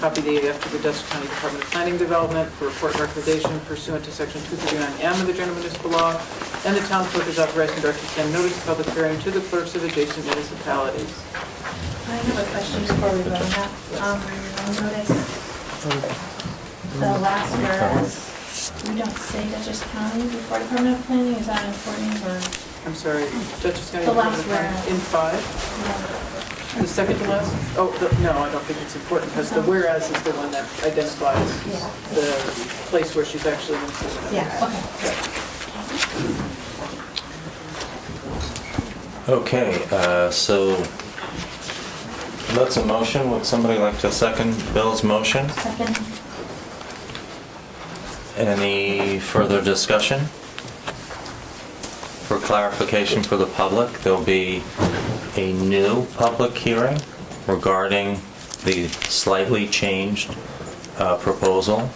copy dated after the Dutchess County Department of Planning Development for report and recommendation pursuant to section 239M of the general municipal law, and the town clerk is authorized and directed to send notice of public hearing to the clerks of adjacent municipalities. I have a question before we vote on that. Um, Notice the last whereas, we don't say Dutchess County before permanent planning, is that important or? I'm sorry, Dutchess County. The Department last of Planning- whereas. In five, the second to last? Oh, the- no, I don't think it's important, because the whereas is the one that identifies Yeah. the place where she's actually going to. Yeah, okay. Okay, uh, so that's a motion. Would somebody like to second Bill's motion? Second, Any further discussion? For clarification for the public, there'll be a new public hearing regarding the slightly changed uh, proposal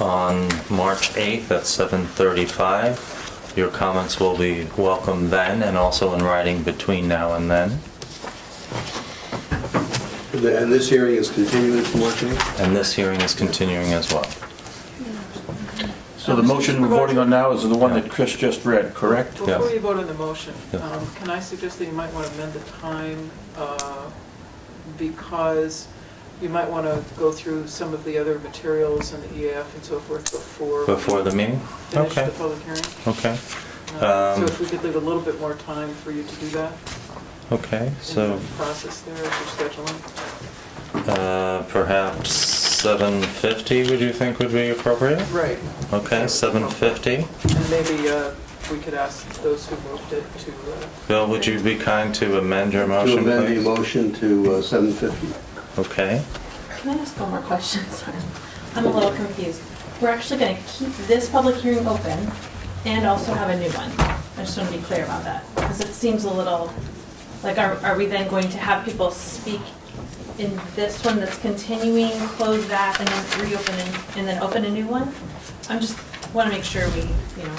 on March 8th at 7:35. Your comments will be welcome then and also in writing between now and then. And this hearing is continuing to March 8th? And this hearing is continuing as well. So the motion we're voting on now is the one that Chris just read, correct? Yeah. Before you vote on the motion, Yeah. um, can I suggest that you might want to amend the time uh, because you might want to go through some of the other materials and the EAF and so forth before we Before the meeting? finish Okay, the public hearing? okay, Uh, So Um, if we could leave a little bit more time for you to do that okay, in so. the process there, if you're scheduling. Uh, perhaps 750 would you think would be appropriate? Right. Okay, 750. And maybe uh, we could ask those who moved it to... uh, Bill, would you be kind to amend your To motion, amend the please? motion to uh, 750. Okay, can I ask one more question? Sorry, I'm a little confused. We're actually going to keep this public hearing open and also have a new one. I just want to be clear about that, because it seems a little, like, are are we then going to have people speak in this one that's continuing, close that, and then reopen and- and then open a new one? I'm just, want to make sure we, you know,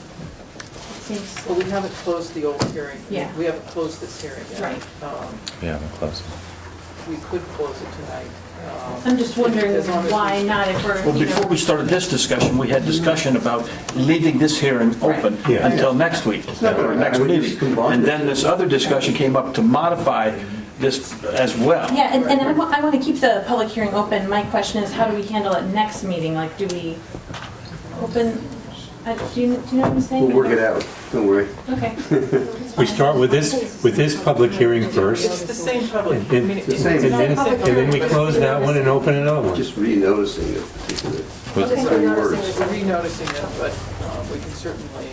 it seems, Well, we haven't closed the old hearing. Yeah. We haven't closed this hearing yet. Right. Um, we haven't closed. We could close it tonight. um, I'm just wondering as long as we- why not if we're, Well, you know... before we started this discussion, we had discussion about leaving this hearing open Right. Yeah. until next week, not or gonna next happen. We meeting. just combine And it. then this other discussion came up to modify this as well. Yeah, and, and I want, I want to keep the public hearing open. My question is, how do we handle it next meeting? Like, do we open, uh, do you, do you know what I'm saying? We'll work it out, don't worry. Okay. We start with this, with this public hearing It's first, the same public. and and- I mean, and it's- same. it's not then, public and then we hearing, close but that one and open another one. Just re-noticing it. particularly. With- Okay. Three it's words. Renoticing it, but uh, we can certainly,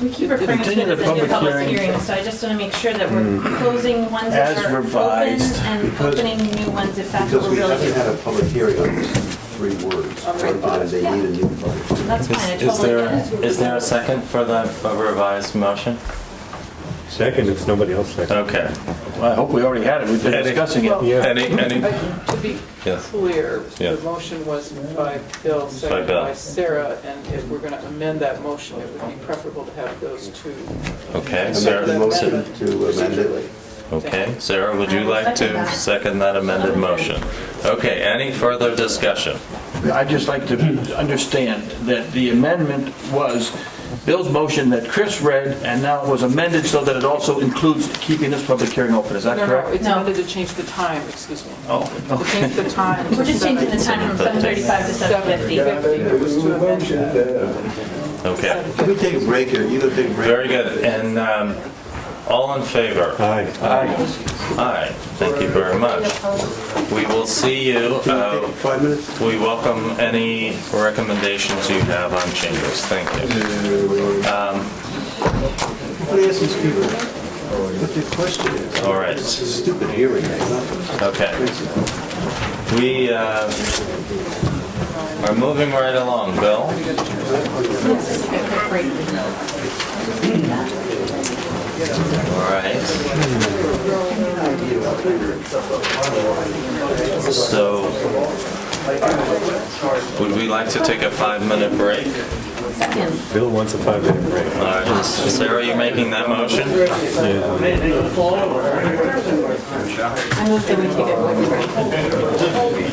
We keep referring to it Continue the as a new public public hearing. hearing, so I just want to make sure that we're closing ones that As are open revised. and Because- opening new ones if that's what Because we're we really haven't had doing. a public hearing on these three words. Sometimes they need a new public hearing. That's fine, I Is is totally there, get it. is there a second for the revised motion? Second, if nobody else seconds. Okay. Well, I hope we already had it, we've been discussing it. well, Yeah. Any, any, I- to be Yes. clear, Yeah. the motion was by Bill, seconded Bill. by Sarah, and if we're going to amend that motion, it would be preferable to have those two. okay, Amend the Sarah, motion to amend it. okay, Sarah, would you like to second that amended motion? Okay, any further discussion? I'd just like to understand that the amendment was Bill's motion that Chris read, and now it was amended so that it also includes keeping this public hearing open, is that No, no, correct? it's No. amended to change the time, excuse me. Oh, To change the time. We're just changing the time from 7:35 to 7:50. It was to amend that. Okay. Can we take a break here? You gonna take a break? Very good, and um, all in favor? Aye. Aye, thank you very much. We will see you. Can we Uh, take Five minutes? We welcome any recommendations you have on changes. Thank you. Let me ask these people what their question is. All right, Stupid hearing, nothing. okay. We uh, are moving right along. Bill? All right. So, would we like to take a five-minute break? Second. Bill wants a five-minute break. All right, is- Sarah, you making that motion? I move that we take a quick break.